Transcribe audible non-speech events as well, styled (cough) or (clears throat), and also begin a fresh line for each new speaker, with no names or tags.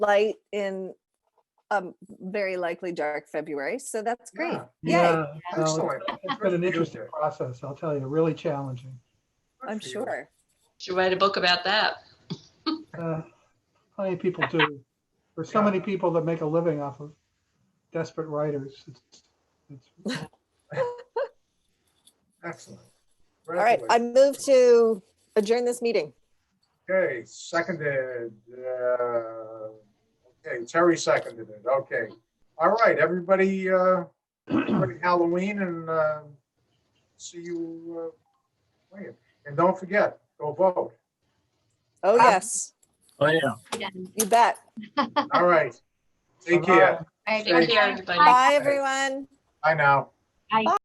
light in a very likely dark February. So that's great. Yay.
Yeah, no, it's-
Excellent.
It's been an interesting process, I'll tell you, really challenging.
I'm sure.
Should write a book about that.
Uh, How many people do? There's so many people that make a living off of desperate writers. It's- it's-
Excellent.
All right. I move to adjourn this meeting.
Okay, seconded. uh, Okay, Terry seconded it. Okay. All right, everybody, uh,
(clears throat)
happy Halloween and uh, see you. uh, later. And don't forget, go vote.
Oh,
Ah.
yes.
Oh, yeah.
You bet. (laughs)
All right. Take care.
Thank
Thank
you,
you.
everybody.
Bye, everyone.
Bye now.